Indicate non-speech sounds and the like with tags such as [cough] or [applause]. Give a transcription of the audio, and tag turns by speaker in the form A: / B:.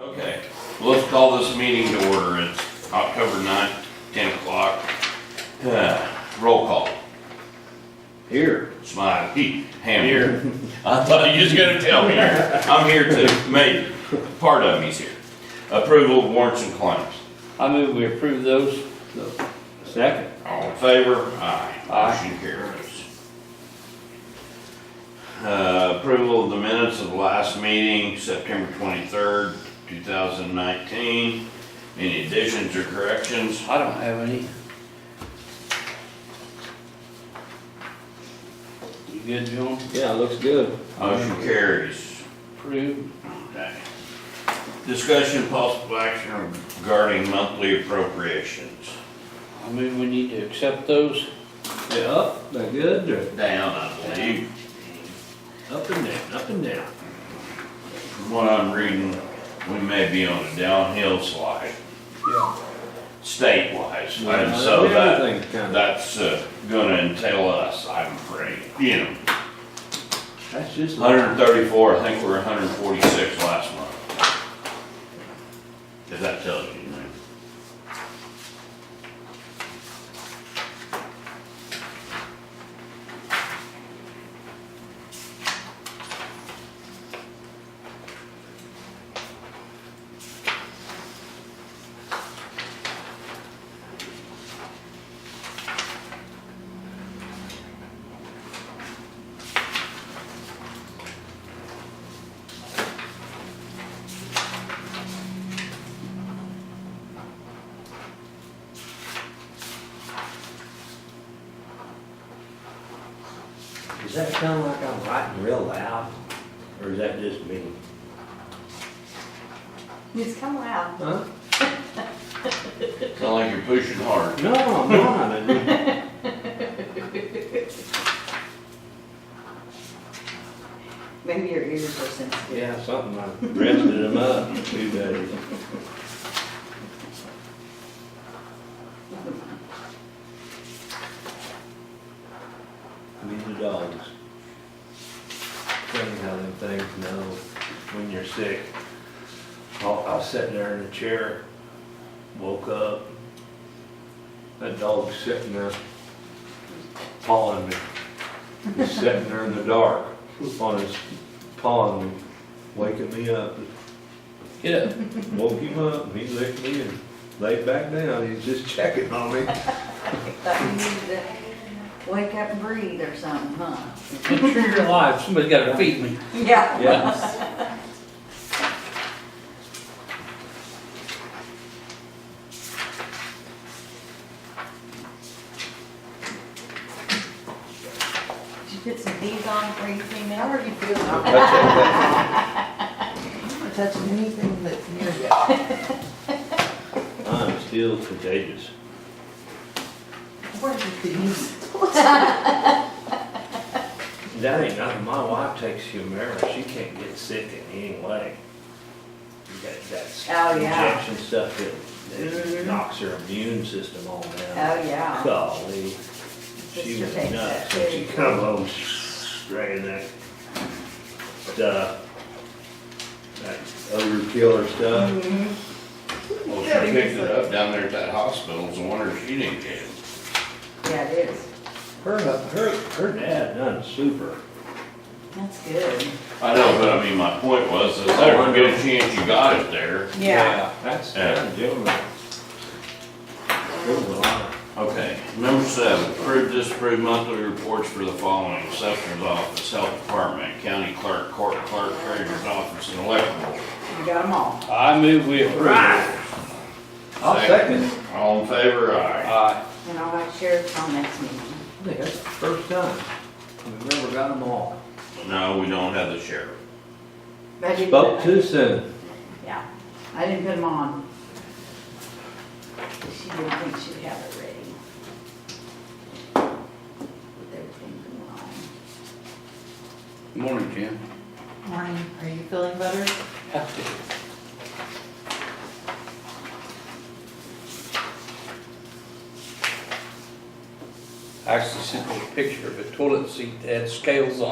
A: Okay, well, let's call this meeting to order. It's October 9th, 10 o'clock. [sighs] Uh, Roll call.
B: Here.
A: Smiley, Heath, Ham. Here. I thought you was gonna tell me. I'm here to, maybe, part of me's here. Approval of warrants and claims.
B: I move we approve those. Second.
A: All in favor? Aye.
B: Aye.
A: Motion carries. Uh, Approval of the minutes of last meeting, September 23rd, 2019. Any additions or corrections?
B: I don't have any. You good, John?
C: Yeah, it looks good.
A: Motion carries.
B: Approved?
A: Okay. Discussion possible action regarding monthly appropriations.
B: I move we need to accept those.
C: They're up, they're good, they're
A: Down, I believe,
C: up and down, up and down.
A: from what I'm reading, we may be on a downhill slide. State-wise, and so that,
C: Everything's kind of,
A: that's uh, gonna entail us, I'm afraid, you know.
B: That's just.
A: Hundred and thirty-four, I think we we're hundred and forty-six last month. Does that tell you anything?
D: Does that sound like I'm writing real loud, or is that just me?
E: It's come out.
C: huh?
A: Sound like you're pushing hard.
C: No, I'm not, I mean,
E: Maybe your ears are sensitive.
C: yeah, something, I rested them up for two days.
D: Leave the dogs.
C: Funny how them things know when you're sick. I I was sitting there in the chair, woke up, that dog sitting there, pawing me. He's sitting there in the dark, on his, pawing me, waking me up.
B: Get up.
C: Woke him up, and he licked me and laid back down, he's just checking on me.
E: Thought you needed to wake up and breathe or something, huh?
B: Make sure you're alive. Somebody's gotta feed me.
E: Yeah.
C: Yeah.
E: Did you put some bees on for you Oh, clean out, or you feel?
D: I'm touching anything that's near you.
C: I'm still contagious.
D: Where did these?
C: That ain't nothing, my wife takes Humira, she can't get sick in any way. That, that's.
E: Oh, yeah.
C: Injection stuff, it, it
E: Mhm.
C: knocks her immune system all
E: Oh,
C: down.
E: yeah.
C: Golly, she
E: Sister
C: was
E: takes
C: nuts,
E: that
C: when she
E: too.
C: come home spraying that stuff. That odor killer stuff,
E: Mhm.
A: Well, she picked it up down there at that hospital, it's a wonder she didn't get it.
E: Yeah, it is.
C: her, her, her dad done super.
E: That's good.
A: I know, but I mean, my point was, is there a good chance you got it there?
E: Yeah.
C: That's,
A: Yeah.
C: that's gentleman. Good one.
A: Okay, number seven, approve, disapprove monthly reports for the following, assessor's office, health department, county clerk, court clerk, treasurer's office, and electrical.
E: You got them all.
B: I move we approve.
C: I'll second.
A: All in favor, aye.
B: Aye.
E: And I'll have sheriff's on next meeting.
C: I think that's the first time we've ever got them all.
A: No, we don't have the sheriff.
E: But I didn't
C: Spoke
E: put-
C: too soon.
E: Yeah. I didn't put them on. She didn't think she'd have it ready. With everything going on.
B: Morning, Jim.
F: Morning, are you feeling better?
B: Have to. I actually sent me a picture of a toilet seat that had scales on